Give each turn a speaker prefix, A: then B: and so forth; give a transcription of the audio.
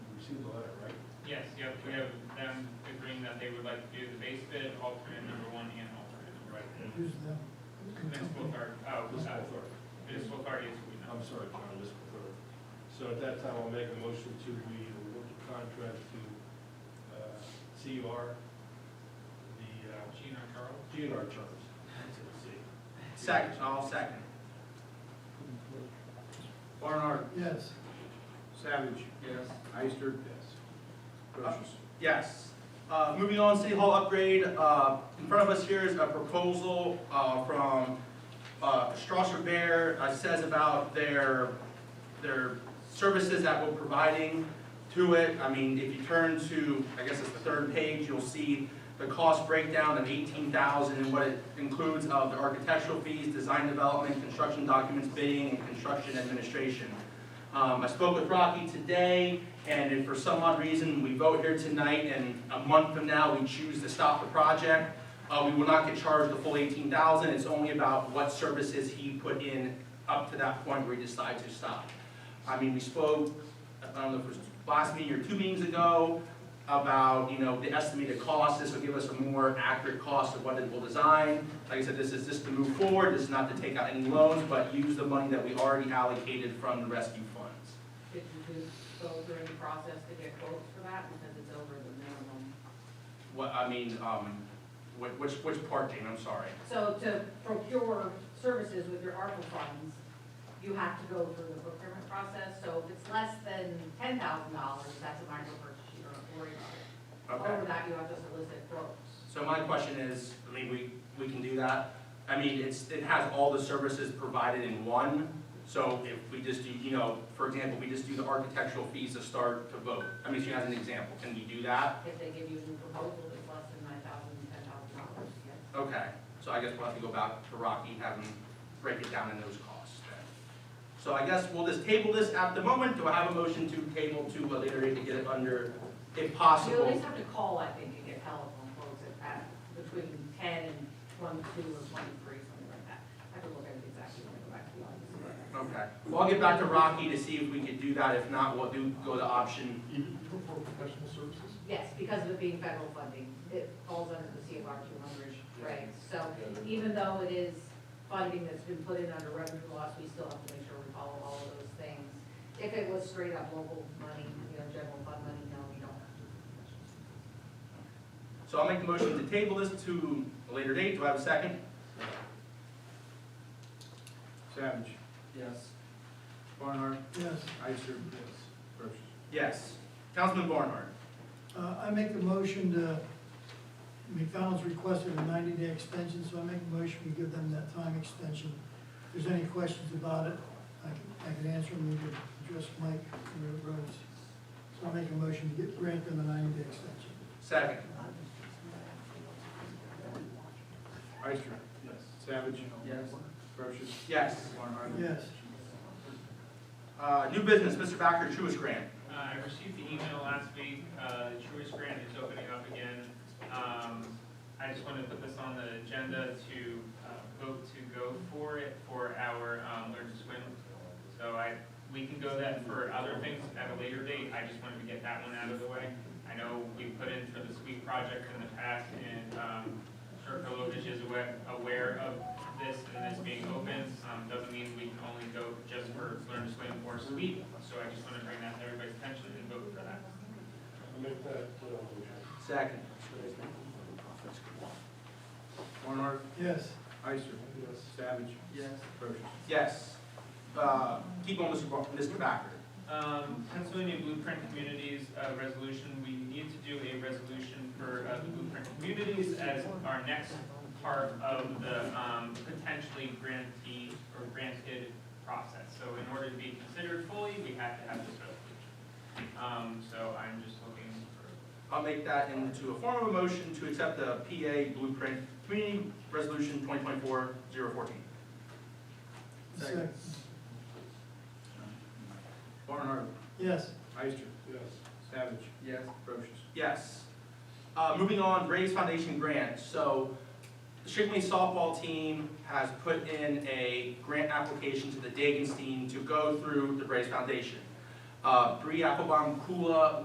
A: Yes, yep, we have them agreeing that they would like to do the base bid, alternate number one and alternate number two.
B: Who's the?
A: Municipal card, oh, uh, municipal card is, we know.
C: I'm sorry, John, this is third. So at that time, I'll make a motion to, we award the contract to uh, CR, the uh,
A: Gina Carl?
C: GNR terms. That's what I see.
D: Second, all second. Barnhart.
B: Yes.
D: Savage.
A: Yes.
D: Ister.
C: Yes.
D: Brochus. Yes. Uh, moving on, City Hall upgrade, uh, in front of us here is a proposal, uh, from, uh, Strasser Bear, uh, says about their, their services that we're providing to it. I mean, if you turn to, I guess it's the third page, you'll see the cost breakdown of eighteen thousand and what it includes of the architectural fees, design development, construction documents, bidding, and construction administration. Um, I spoke with Rocky today, and if for some odd reason we vote here tonight and a month from now we choose to stop the project, uh, we will not get charged the full eighteen thousand, it's only about what services he put in up to that point where he decides to stop. I mean, we spoke, I don't know if it was last meeting or two meetings ago, about, you know, the estimated cost, this will give us a more accurate cost of what it will design. Like I said, this is just to move forward, this is not to take out any loans, but use the money that we already allocated from the rescue funds.
E: Did you go through any process to get quotes for that, because it's over the minimum?
D: What, I mean, um, whi- which, which part, Jane, I'm sorry.
E: So to procure services with your ARPA funds, you have to go through the procurement process, so if it's less than ten thousand dollars, that's a minor purchase, you don't have to worry about it. Over
D: Okay.
E: that, you have to solicit quotes.
D: So my question is, I mean, we, we can do that. I mean, it's, it has all the services provided in one. So if we just do, you know, for example, we just do the architectural fees to start to vote. I mean, she has an example, can we do that?
E: If they give you a new proposal that's less than nine thousand, ten thousand dollars, yes.
D: Okay, so I guess we'll have to go back to Rocky, and have him break it down in those costs then. So I guess we'll just table this at the moment, do I have a motion to table to a later date to get it under, if
E: You at
D: possible?
E: least have to call, I think, and get telephone quotes at, at between ten and twenty-two or twenty-three, something like that. I have to look at it exactly when I go back to the office.
D: Okay, well, I'll get back to Rocky to see if we could do that, if not, we'll do, go to option,
B: Even for professional services?
E: Yes, because of it being federal funding, it falls under the CFR two hundred regs. So even though it is funding that's been put in under revenue loss, we still have to make sure we follow all of those things. If it was straight up local money, you know, general fund money, no, we don't have to.
D: so I'll make the motion to table this to a later date, do I have a second?
F: Savage.
D: Yes.
F: Barnhart.
B: Yes.
F: Ister. Yes. Brochus.
D: Yes, Councilman Barnhart,
B: Uh, I make the motion to, McDonald's requested a ninety-day extension, so I make the motion, we give them that time extension. If there's any questions about it, I can, I can answer them, we can address Mike and Rose. So I make a motion to get, grant them a ninety-day extension.
D: second.
F: Ister.
C: Yes.
F: Savage.
D: Yes.
F: Brochus.
D: Yes,
F: Barnhart.
B: Yes.
D: uh, new business, Mr. Backer, Truist Grant.
A: Uh, I received the email last week, uh, the Truist Grant is opening up again. Um, I just wanted to put this on the agenda to, uh, vote to go for it for our, um, learn to swim. So I, we can go that for other things at a later date, I just wanted to get that one out of the way. I know we put in for the sweep project in the past, and, um, Sherco Lovich is aware, aware of this and this being open, um, doesn't mean we can only go just for learn to swim or sweep, so I just wanna bring that to everybody's attention and vote for that.
C: I'll make that, uh,
D: Second.
F: Barnhart.
B: Yes.
F: Ister.
C: yes.
F: Savage.
D: Yes.
F: Brochus.
D: Yes. Uh, Keep on, Mr. Bar- Mr. Backer.
A: Um, Pennsylvania Blueprint Communities, uh, resolution, we need to do a resolution for, uh, the Blueprint Communities as our next part of the, um, potentially grantee or granted process. So in order to be considered fully, we have to have this resolution. Um, so I'm just looking for,
D: I'll make that into a form of a motion to accept the PA Blueprint Community Resolution 2024-014.
B: Second.
F: Barnhart.
B: Yes.
F: Ister.
C: Yes.
F: Savage.
D: Yes.
F: Brochus.
D: Yes. Uh, Moving on, Braves Foundation grant. So the Shigley softball team has put in a grant application to the Dagens team to go through the Braves Foundation. Uh, Bree Applebaum Kula